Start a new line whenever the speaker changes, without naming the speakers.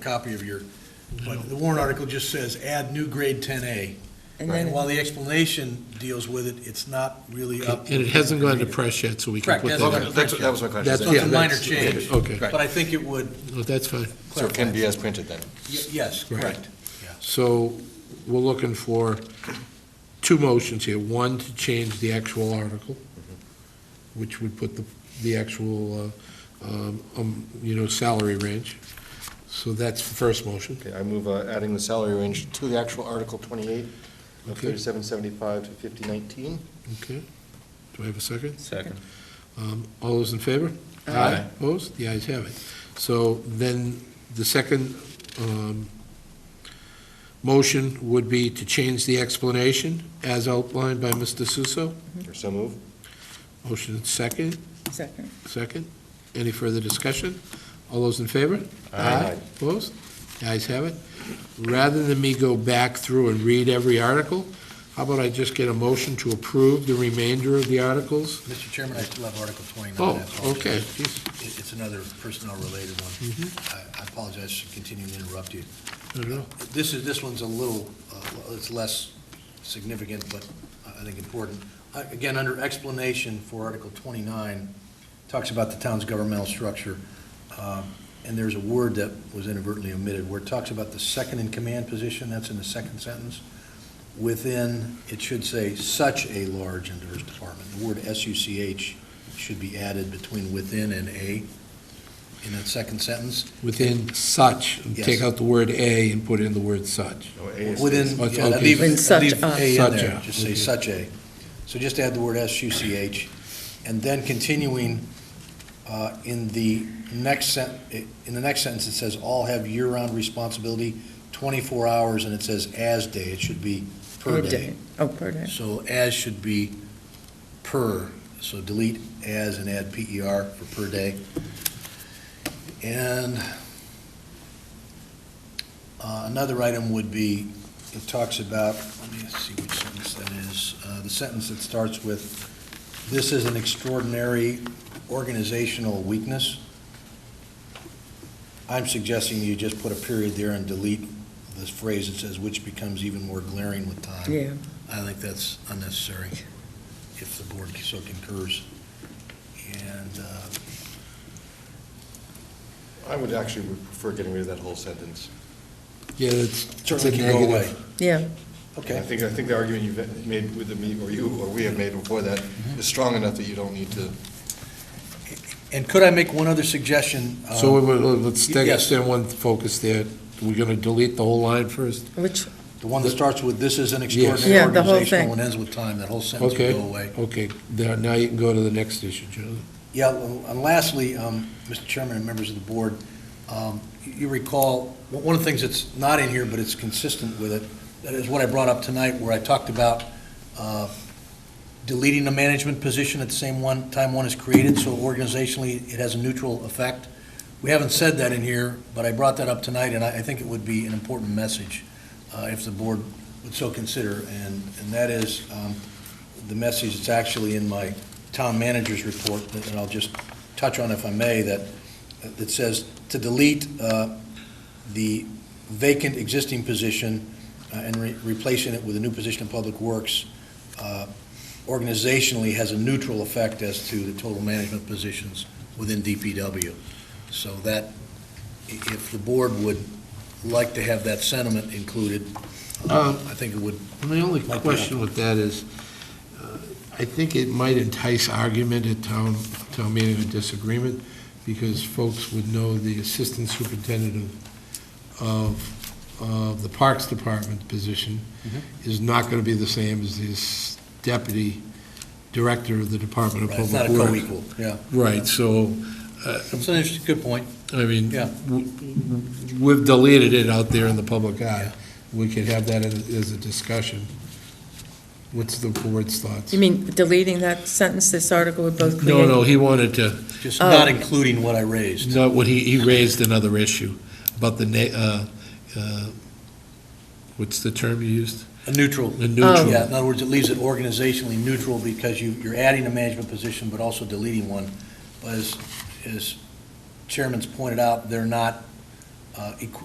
copy of your, but the warrant article just says add new grade 10A.
And
And
then,
while the explanation deals with it, it's not really up.
And it hasn't gone to press yet, so we can
Correct,
put
that's
that
what-
out.
Okay, that's, that was my question.
That's-
So it's
yeah,
a minor
that's-
change.
okay.
But I think it would,
No, That's fine.
So it can be as printed then?
y- yes,
Right.
correct.
So we're looking for two motions here. One, to change the actual article, which would put the, the actual, uh, um, um, you know, salary range. So that's the first motion.
Okay, I move uh, adding the salary range to the actual Article 28 of
Okay.
3775 to 5019.
Okay. Do I have a second?
Second.
Um, All those in favor?
Aye.
Opposed? The ayes have it. So then, the second um, motion would be to change the explanation as outlined by Mr. Suso.
Or so move?
Motion second,
second,
second. Any further discussion? All those in favor?
Aye.
Opposed? The ayes have it. Rather than me go back through and read every article, how about I just get a motion to approve the remainder of the articles?
Mr. Chairman, I still have Article 29.
Oh,
that's all.
okay. Mm-hmm.
It- It's another personnel-related one. I I apologize for continuing to interrupt you.
I don't know.
This is, this one's a little, uh, it's less significant, but I think important. Uh, Again, under explanation for Article 29, talks about the town's governmental structure, um, and there's a word that was inadvertently omitted, where it talks about the second-in-command position, that's in the second sentence. Within, it should say such a large and diverse department. The word S-U-C-H should be added between within and a in that second sentence.
Within such,
Yes.
take out the word "a" and put in the word "such."
No, A is-
Within,
Such,
yeah,
okay.
leave,
Within such
leave
a.
A in
Such
there,
a,
just say
okay.
such a. So just add the word S-U-C-H, and then continuing, uh, in the next sen, in the next sentence, it says, "All have year-round responsibility, 24 hours," and it says "as day," it should be per
per
day.
day, oh, per day,
So "as" should be per, so delete "as" and add P-E-R for per day. And uh, another item would be, it talks about, let me see which sentence that is, uh, the sentence that starts with, "This is an extraordinary organizational weakness." I'm suggesting you just put a period there and delete this phrase that says, "which becomes even more glaring with time."
yeah.
I think that's unnecessary, if the board so concurs. And, uh,
I would actually prefer getting rid of that whole sentence.
Yeah, it's, it's a
Certainly can go
negative.
Yeah,
I
okay,
think, I think the argument you've made with me, or you, or we have made before that,
Mm-hmm.
is strong enough that you don't need to.
and could I make one other suggestion? uh,
So we- we- let's take,
Yes.
stand one focus there. We're going to delete the whole line first?
which,
The one that starts with, "This is an
Yeah,
extraordinary
the whole
organizational,"
thing.
and ends with time, that whole sentence would
Okay,
go away.
okay. There- Now you can go to the next issue, Jonathan.
Yeah, well, and lastly, um, Mr. Chairman and members of the board, um, you recall, one one of the things that's not in here, but it's consistent with it, that is what I brought up tonight, where I talked about uh, deleting the management position at the same one, time one is created, so organizationally, it has a neutral effect. We haven't said that in here, but I brought that up tonight, and I I think it would be an important message uh, if the board would so consider, and and that is um, the message that's actually in my town manager's report, that- and I'll just touch on if I may, that, that says to delete uh, the vacant existing position uh, and re- replacing it with a new position in Public Works uh, organizationally has a neutral effect as to the total management positions within DPW. So that, i- if the board would like to have that sentiment included, uh,
Um,
I think it would,
My only
Might be
question with that is, uh, I think it might entice argument at town, town meeting or disagreement, because folks would know the assistant superintendent of, of, of the Parks Department position
Mm-hmm.
is not gonna be the same as this deputy director of the Department of
right, it's not
Public
a
Works.
co-equal, yeah.
Right, so, uh,
It's an interesting, good point.
I mean,
Yeah.
w- we've deleted it out there in the public eye. We could have that as as a discussion. What's the board's thoughts?
you mean deleting that sentence, this article would both create?
No, no, he wanted to,
Just
Oh.
not including what I raised.
no, what he, he raised another issue about the, na- uh, uh, what's the term you used?
A neutral.
Oh,
The neutral.
Yeah, in other words, it leaves it organizationally neutral because you, you're adding a management position, but also deleting one. But as, as Chairman's pointed out, they're not uh, uh, equ-